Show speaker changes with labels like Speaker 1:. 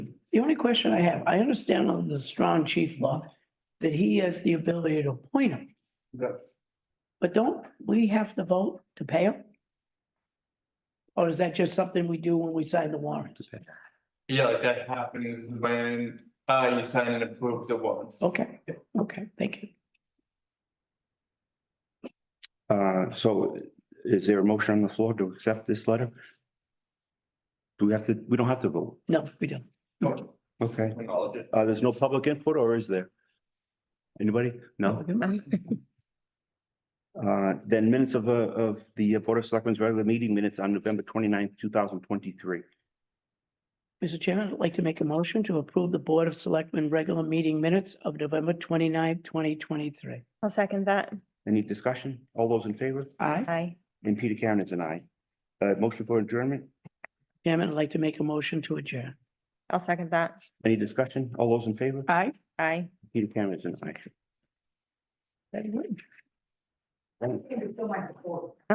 Speaker 1: The only question I have, I understand under the strong chief law that he has the ability to appoint him,
Speaker 2: Yes.
Speaker 1: but don't we have to vote to pay him? Or is that just something we do when we sign the warrant?
Speaker 2: Yeah, like that happens when uh you sign and approve the warrants.
Speaker 1: Okay, okay, thank you.
Speaker 3: Uh, so is there a motion on the floor to accept this letter? Do we have to, we don't have to vote.
Speaker 1: No, we don't.
Speaker 3: Okay.
Speaker 2: Acknowledge it.
Speaker 3: Uh, there's no public input or is there? Anybody? No? Uh, then minutes of, uh, of the Board of Selectmen's regular meeting minutes on November 29th, thousand twenty-three.
Speaker 1: Mr. Chairman, I'd like to make a motion to approve the Board of Selectmen regular meeting minutes of November 29th, twenty twenty-three.
Speaker 4: I'll second that.
Speaker 3: Any discussion? All those in favor?
Speaker 1: Aye.
Speaker 4: Aye.
Speaker 3: And Peter Karen is an aye. Uh, motion for adjournment?
Speaker 1: Chairman, I'd like to make a motion to adjourn.
Speaker 4: I'll second that.
Speaker 3: Any discussion? All those in favor?
Speaker 1: Aye.
Speaker 4: Aye.
Speaker 3: Peter Karen is an aye.
Speaker 1: Very good.
Speaker 3: Thank you.